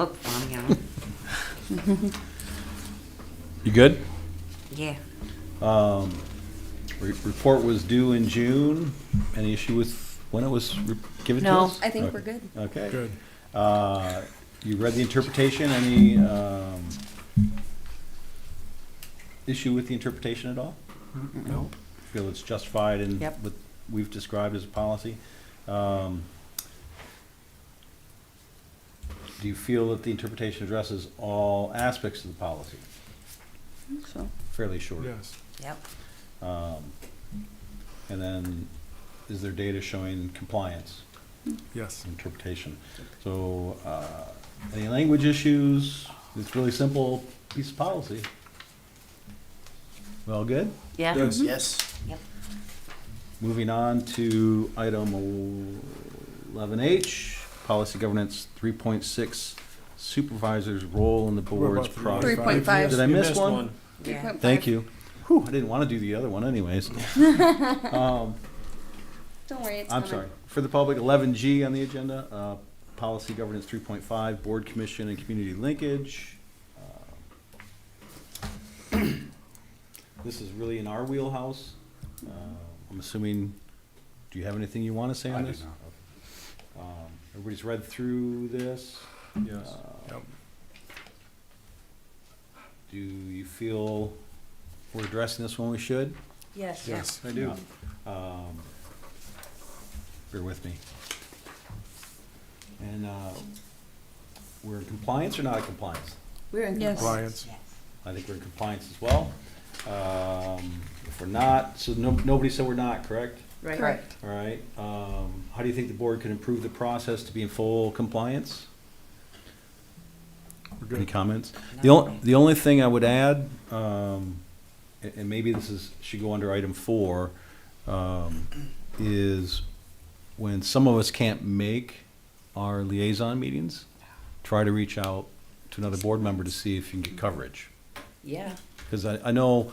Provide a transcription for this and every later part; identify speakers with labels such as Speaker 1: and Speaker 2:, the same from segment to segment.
Speaker 1: Look for 'em, you know.
Speaker 2: You good?
Speaker 1: Yeah.
Speaker 2: Re- Report was due in June. Any issue with when it was re- given to
Speaker 1: No,
Speaker 2: us?
Speaker 3: I think
Speaker 2: Okay.
Speaker 3: we're good.
Speaker 2: Okay. Good. Uh, you read the interpretation, any, um, issue with the interpretation at all?
Speaker 1: Nope.
Speaker 2: Feel it's justified in
Speaker 1: Yep.
Speaker 2: what we've described as a policy? Um, do you feel that the interpretation addresses all aspects of the policy?
Speaker 3: So,
Speaker 2: Fairly short.
Speaker 4: Yes.
Speaker 1: Yep.
Speaker 2: Um, And then, is there data showing compliance,
Speaker 4: Yes.
Speaker 2: interpretation? So, uh, any language issues? It's really simple piece of policy. Well, good.
Speaker 1: Yeah.
Speaker 4: Yes.
Speaker 5: Yes.
Speaker 2: Moving on to item eleven H, policy governance three point six, supervisor's role in the board's
Speaker 3: Three
Speaker 2: progress.
Speaker 3: point five.
Speaker 2: Did I
Speaker 5: You
Speaker 2: miss
Speaker 5: missed
Speaker 2: one?
Speaker 1: Yeah.
Speaker 3: 3.5.
Speaker 2: Thank you. Whew, I didn't want to do the other one anyways. Um,
Speaker 3: Don't worry, it's
Speaker 2: I'm
Speaker 3: coming.
Speaker 2: sorry, for the public, eleven G on the agenda, uh, policy governance three point five, board commission and community linkage. Uh, This is really in our wheelhouse. Uh, I'm assuming, do you have anything you want to say on this? Um, Everybody's read through this. Uh,
Speaker 4: Yes. Yep.
Speaker 2: Do you feel we're addressing this when we should?
Speaker 1: Yes.
Speaker 4: Yes.
Speaker 2: I do. Um, bear with me. And, uh, we're in compliance or not in compliance?
Speaker 1: We're in
Speaker 3: Yes.
Speaker 4: Compliance.
Speaker 2: I think we're in compliance as well. Um, if we're not, so no, nobody said we're not, correct?
Speaker 1: Right.
Speaker 3: Correct.
Speaker 2: All right, um, how do you think the board can improve the process to be in full compliance?
Speaker 4: We're
Speaker 2: Any
Speaker 4: good.
Speaker 2: comments? The only, the only thing I would add, um, and, and maybe this is, should go under item four, um, is when some of us can't make our liaison meetings, try to reach out to another board member to see if you can get coverage.
Speaker 1: Yeah.
Speaker 2: Because I, I know,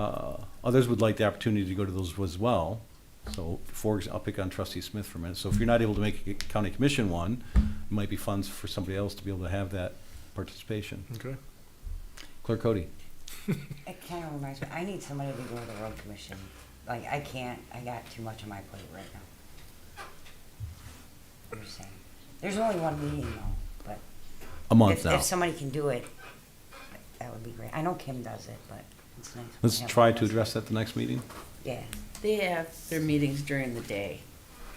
Speaker 2: uh, others would like the opportunity to go to those as well. So for, ex- I'll pick on trustee Smith for a minute. So if you're not able to make a county commission one, it might be funds for somebody else to be able to have that participation.
Speaker 4: Okay.
Speaker 2: Clerk Cody.
Speaker 1: It kind of reminds me, I need somebody to go to the road commission. Like, I can't, I got too much on my plate right now. I'm just saying. There's only one meeting though,
Speaker 2: A
Speaker 1: but
Speaker 2: month
Speaker 1: if,
Speaker 2: now.
Speaker 1: if somebody can do it, that would be great. I know Kim does it, but it's nice. when
Speaker 2: Let's
Speaker 1: we have
Speaker 2: try
Speaker 1: one
Speaker 2: to
Speaker 1: of us.
Speaker 2: address that the next meeting.
Speaker 1: Yeah,
Speaker 6: They have their meetings during the day.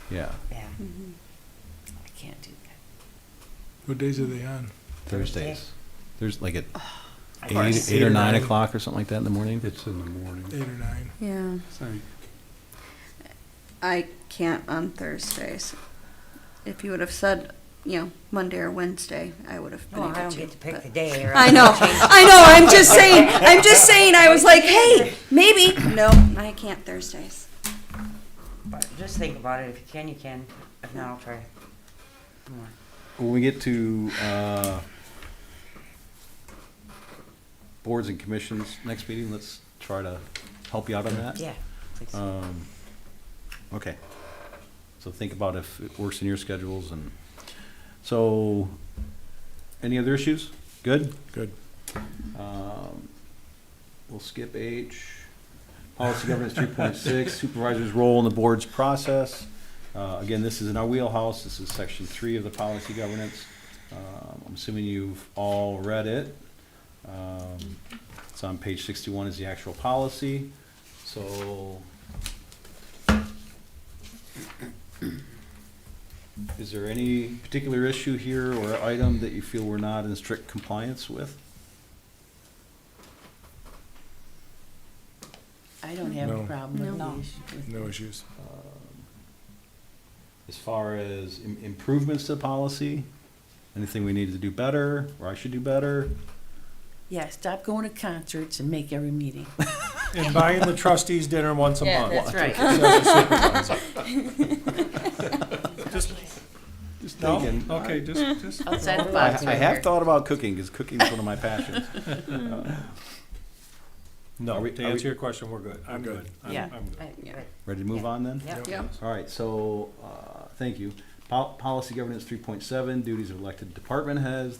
Speaker 2: Yeah,
Speaker 1: yeah.
Speaker 3: Mm-hmm.
Speaker 6: I can't do that.
Speaker 4: What days are they on?
Speaker 2: Thursdays. There's like at
Speaker 1: Of
Speaker 2: eight,
Speaker 1: course.
Speaker 2: eight or
Speaker 4: Eight or nine.
Speaker 2: nine o'clock or something like that in the morning.
Speaker 7: It's in the morning.
Speaker 4: Eight or nine?
Speaker 3: Yeah,
Speaker 7: Sorry.
Speaker 3: I can't on Thursdays. If you would have said, you know, Monday or Wednesday, I would have been
Speaker 1: No,
Speaker 3: able
Speaker 1: I
Speaker 3: to.
Speaker 1: don't get to pick
Speaker 3: but-
Speaker 1: the day or.
Speaker 3: I know, I know, I'm just saying, I'm just saying, I was like, hey, maybe, no, I can't Thursdays.
Speaker 1: But just think about it. If you can, you can. If not, I'll try. Come on.
Speaker 2: When we get to, uh, boards and commissions next meeting, let's try to help you out on that.
Speaker 1: Yeah. please.
Speaker 2: Um, okay. So think about if it works in your schedules and, so, any other issues? Good?
Speaker 4: Good.
Speaker 2: Um, We'll skip H. Policy governance three point six, supervisor's role in the board's process. Uh, again, this is in our wheelhouse. This is section three of the policy governance. Um, I'm assuming you've all read it. Um, It's on page sixty-one is the actual policy, so. Is there any particular issue here or item that you feel we're not in strict compliance with?
Speaker 6: I don't have a
Speaker 4: No.
Speaker 6: problem with
Speaker 3: No.
Speaker 6: the issue. with-
Speaker 4: No issues.
Speaker 2: as far as im- improvements to policy, anything we need to do better, or I should do better.
Speaker 6: Yeah, stop going to concerts and make every meeting.
Speaker 5: And buying the trustees dinner once a
Speaker 6: Yeah,
Speaker 5: month.
Speaker 6: that's right.
Speaker 2: Just
Speaker 5: No?
Speaker 2: thinking.
Speaker 5: Okay, just, just.
Speaker 6: Outside the
Speaker 2: I,
Speaker 6: box.
Speaker 2: I
Speaker 6: Roger.
Speaker 2: have thought about cooking, because cooking is one of my passions. Uh, Are
Speaker 5: No,
Speaker 2: we-
Speaker 5: to
Speaker 2: are we-
Speaker 5: answer your question, we're good. I'm
Speaker 4: We're
Speaker 5: good.
Speaker 4: good.
Speaker 5: I'm-
Speaker 6: Yeah.
Speaker 5: I'm good.
Speaker 1: Right,
Speaker 2: Ready to move
Speaker 1: Yeah.
Speaker 2: on then?
Speaker 1: Yep.
Speaker 3: Yeah.
Speaker 2: All right, so, uh, thank you. Pol- Policy governance three point seven, duties of elected department heads.